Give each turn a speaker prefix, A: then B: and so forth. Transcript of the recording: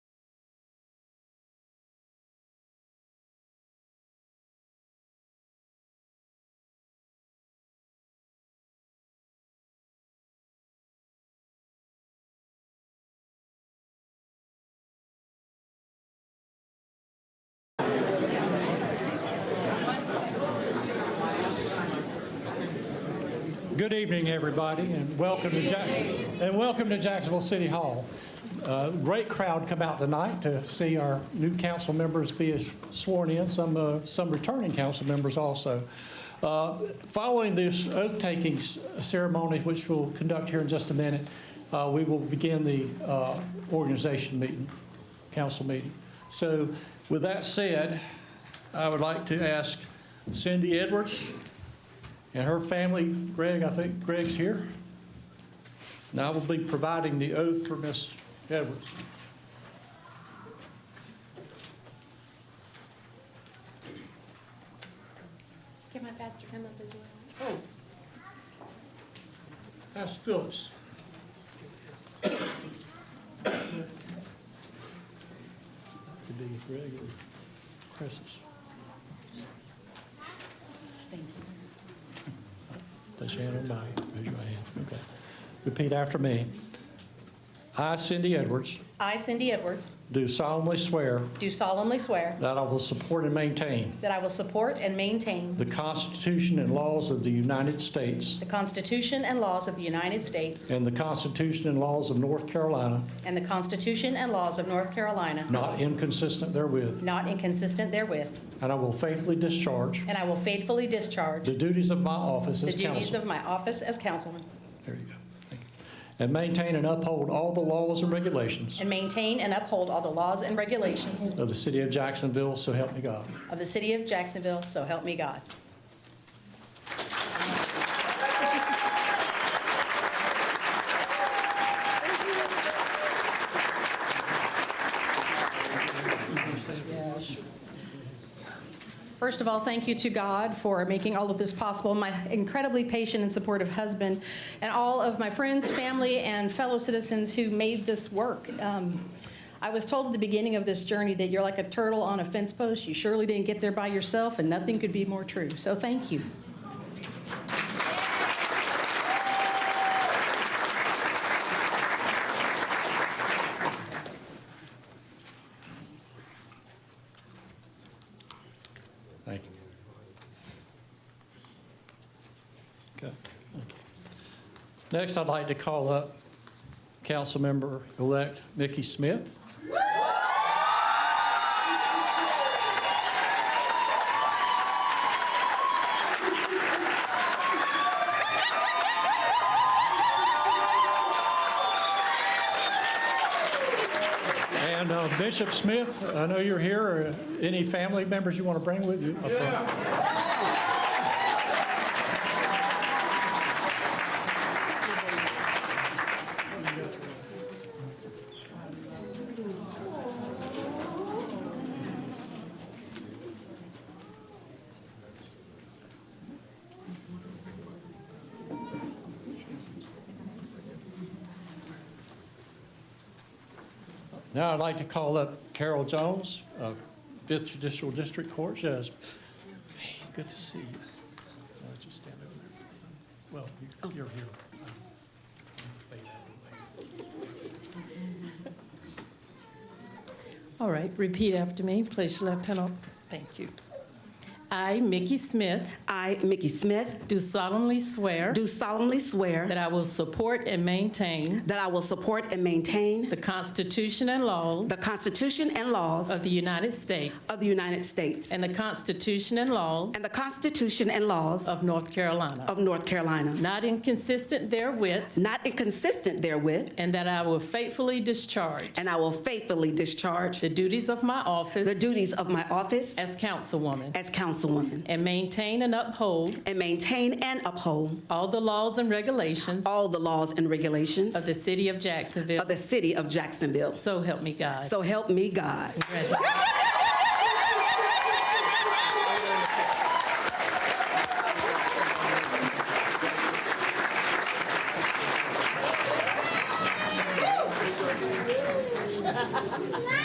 A: Good evening, everybody, and welcome to Jack, and welcome to Jacksonville City Hall. Uh, Great crowd come out tonight to see our new council members be sworn in, some, uh, some returning council members also. Uh, Following this oath-taking s- ceremony, which we'll conduct here in just a minute, uh, we will begin the uh, organization meeting, council meeting. So with that said, I would like to ask Cindy Edwards, and her family, Greg, I think Greg's here. And I will be providing the oath for Miss Edwards.
B: Can my pastor come up as well?
A: Oh, that's Phyllis. Could be Greg or Chris's. Thank you. Place your hand on mine, raise your hand, okay. Repeat after me. I, Cindy Edwards,
C: I, Cindy Edwards,
A: do solemnly swear
C: do solemnly swear
A: that I will support and maintain
C: that I will support and maintain
A: the Constitution and laws of the United States
C: the Constitution and laws of the United States
A: And the Constitution and laws of North Carolina,
C: and the Constitution and laws of North Carolina,
A: not inconsistent therewith.
C: not inconsistent therewith,
A: And I will faithfully discharge
C: and I will faithfully discharge
A: the duties of my office
C: the
A: as
C: duties
A: council.
C: of my office as councilman
A: There you go. Thank you. And maintain and uphold all the laws and regulations
C: and maintain and uphold all the laws and regulations
A: of the city of Jacksonville, so help me God.
C: of the city of Jacksonville, so help me God. First of all, thank you to God for making all of this possible, my incredibly patient and supportive husband, and all of my friends, family, and fellow citizens who made this work. Um, I was told at the beginning of this journey that you're like a turtle on a fence post. You surely didn't get there by yourself, and nothing could be more true. So thank you.
A: Thank you. Okay. thank you. Next, I'd like to call up Councilmember-elect Mickey Smith. And uh, Bishop Smith, I know you're here. Uh, Any family members you want to bring with you? up front? Now I'd like to call up Carol Jones of Fifth Judicial District Court. Yes. Hey, good to see you. Uh, Just stand over there. Well, you- you're here.
D: All right, repeat after me. Place your left hand on. Thank you. I, Mickey Smith,
E: I, Mickey Smith,
D: do solemnly swear
E: do solemnly swear
D: that I will support and maintain
E: that I will support and maintain
D: the Constitution and laws
E: the Constitution and laws
D: of the United States
E: of the United States
D: and the Constitution and laws
E: and the Constitution and laws
D: of North Carolina,
E: of North Carolina,
D: not inconsistent therewith,
E: not inconsistent therewith,
D: and that I will faithfully discharge
E: and I will faithfully discharge
D: the duties of my
E: the
D: office
E: duties of my office
D: as councilwoman
E: as councilwoman
D: and maintain and uphold
E: and maintain and uphold
D: all the laws and regulations
E: all the laws and regulations
D: of the city of Jacksonville.
E: of the city of Jacksonville.
D: So help me God.
E: So help me God.
D: Congratulations.